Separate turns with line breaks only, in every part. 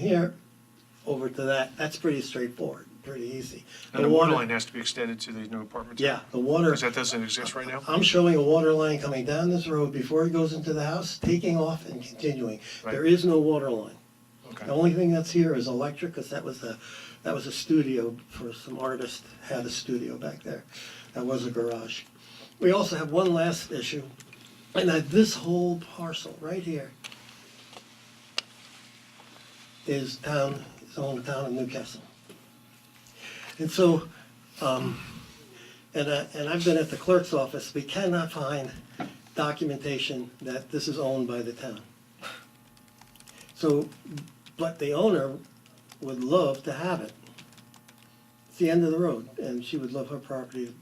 here over to that, that's pretty straightforward, pretty easy.
And the water line has to be extended to these new apartments?
Yeah, the water,
Because that doesn't exist right now?
I'm showing a water line coming down this road before it goes into the house, taking off and continuing.
Right.
There is no water line. The
Okay,
only thing that's here is electric, because that was a, that was a studio for some artist, had a studio back there. That was a garage. We also have one last issue, and that this whole parcel right here is town, is owned town of Newcastle. And so, um, and I, and I've been at the clerk's office, we cannot find documentation that this is owned by the town. So, but the owner would love to have it. It's the end of the road, and she would love her property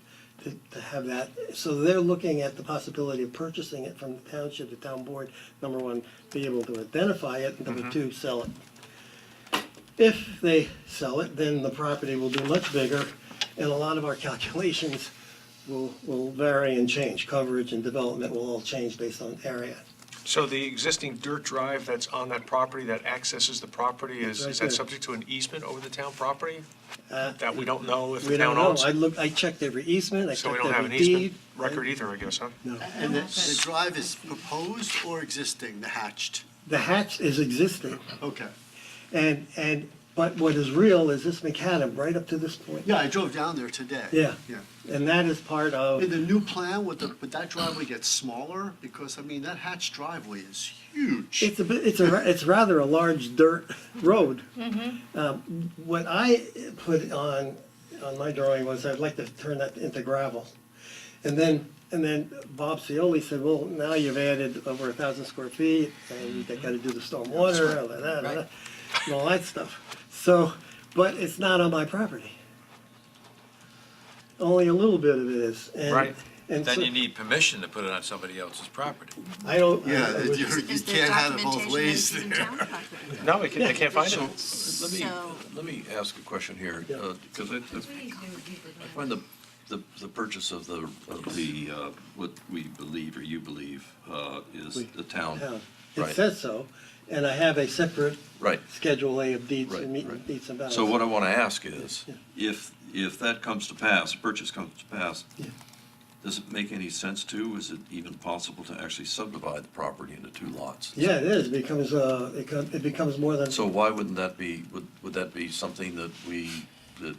to, to have that. So they're looking at the possibility of purchasing it from the township, the town board, number one, be able to identify it, and number two, sell it. If they sell it, then the property will be much bigger, and a lot of our calculations will, will vary and change. Coverage and development will all change based on area.
so the existing dirt drive that's on that property that accesses the property, is,
Right
is
there.
that subject to an easement over the town property?
Uh,
That we don't know if
We
the
don't
town
know,
owns?
I looked, I checked every easement, I
So we
checked
don't have an
every
easement
deed.
record either, I guess, huh?
No.
And the, the drive is proposed or existing, the hatched?
The hatch is existing,
Okay.
and, and, but what is real is this macadam right up to this point.
Yeah, I drove down there today.
Yeah.
Yeah.
And that is part of,
In the new plan, would the, would that driveway get smaller? Because, I mean, that hatched driveway is huge.
it's a bit, it's a, ra- it's rather a large dirt road.
Mm-hmm.
Um, What I put on, on my drawing was I'd like to turn that into gravel. And then, and then Bob Cioli said, well, now you've added over a thousand square feet, and
Mm-hmm.
they gotta do the stormwater, all that, all that, and all that stuff. So, but it's not on my property. Only a little bit of it is, and.
Right.
and so-
Then you need permission to put it on somebody else's property.
I don't. I-
Yeah,
I
you
wish-
you
Is there
can't have it both
documentation that
ways
it's in
there.
town property?
No, they can't, they can't find it.
Let me,
So-
let me ask a question here,
Yeah.
because I I find the, the the purchase of the, of the, uh, what we believe or you believe uh, is
We-
the town.
town. It
Right.
says so, and I have a separate
Right.
Schedule A of deeds
Right,
and me-
right.
deeds and bounds.
So what I want to ask is,
uh, Yeah.
if, if that comes to pass, purchase comes to pass,
Yeah.
does it make any sense to, is it even possible to actually subdivide the property into two lots?
Yeah, it is, becomes, uh, it co- it becomes more than,
So why wouldn't that be, would, would that be something that we, that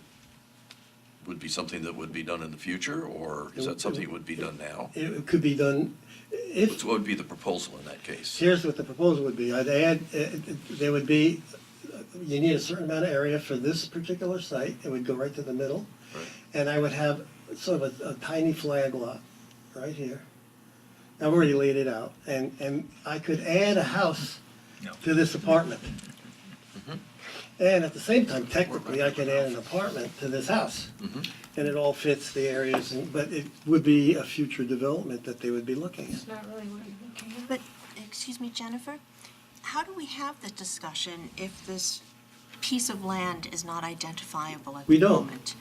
would be something that would be done in the future, or is that something that would be done now?
it it could be done, if,
So What would be the proposal in that case?
here's what the proposal would be, I'd add, uh, there would be, uh, you need a certain amount of area for this particular site, it would go right to the middle.
Right.
And I would have sort of a a tiny flag lot right here. I've already laid it out, and, and I could add a house to this apartment. And at the same time, technically, I could add an apartment to this house. And it all fits the areas, and- but it would be a future development that they would be looking at.
not really what you're looking at.
But, excuse me, Jennifer, how do we have this discussion if this piece of land is not identifiable at
We
the
don't.
moment?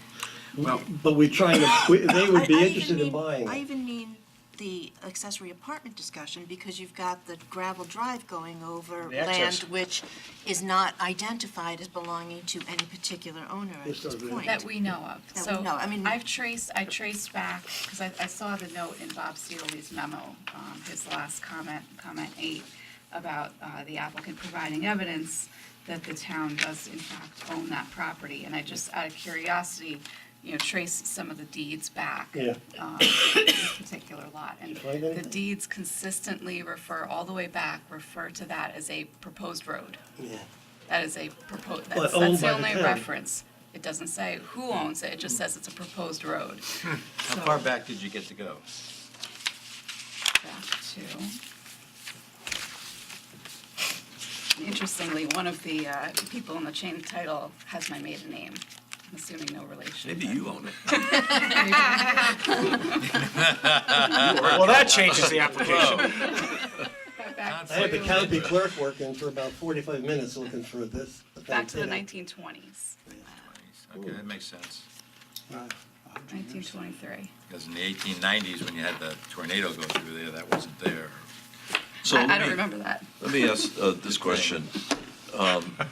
Well, But we're trying to, we- they would
I- I
be
even
interested in
mean-
buying
I
it.
even mean the accessory apartment discussion, because you've got the gravel drive going over
The access.
land which is not identified as belonging to any particular owner at
Yes,
this
sir, yeah.
point.
That we know of.
That we know, I mean-
So I've traced, I traced back, because I, I saw the note in Bob Seoli's memo, um, his last comment, comment eight, about, uh, the applicant providing evidence that the town does in fact own that property. And I just, out of curiosity, you know, traced some of the deeds back.
Yeah.
um, this particular lot. And
you find
the
anything?
deeds consistently refer, all the way back, refer to that as a proposed road.
Yeah.
That is a proposed, that's,
owned
that's
by
the
the
only
town.
reference. It doesn't say who owns it, it just says it's a proposed road.
Hmm, How far back did you get to go?
Back to. Interestingly, one of the uh, people in the chain title has my maiden name, I'm assuming no relation.
Maybe
but-
you own it.
Well, that changes the application.
But back
I had the
to-
county clerk working for about forty-five minutes looking for this.
Back to the
thing.
nineteen twenties,
Okay, that makes sense.
nineteen twenty-three.
Because in the 1890s, when you had the tornado go through there, that wasn't there.
So
I, I
let
don't
me,
remember that.
let me ask uh, this question. Um,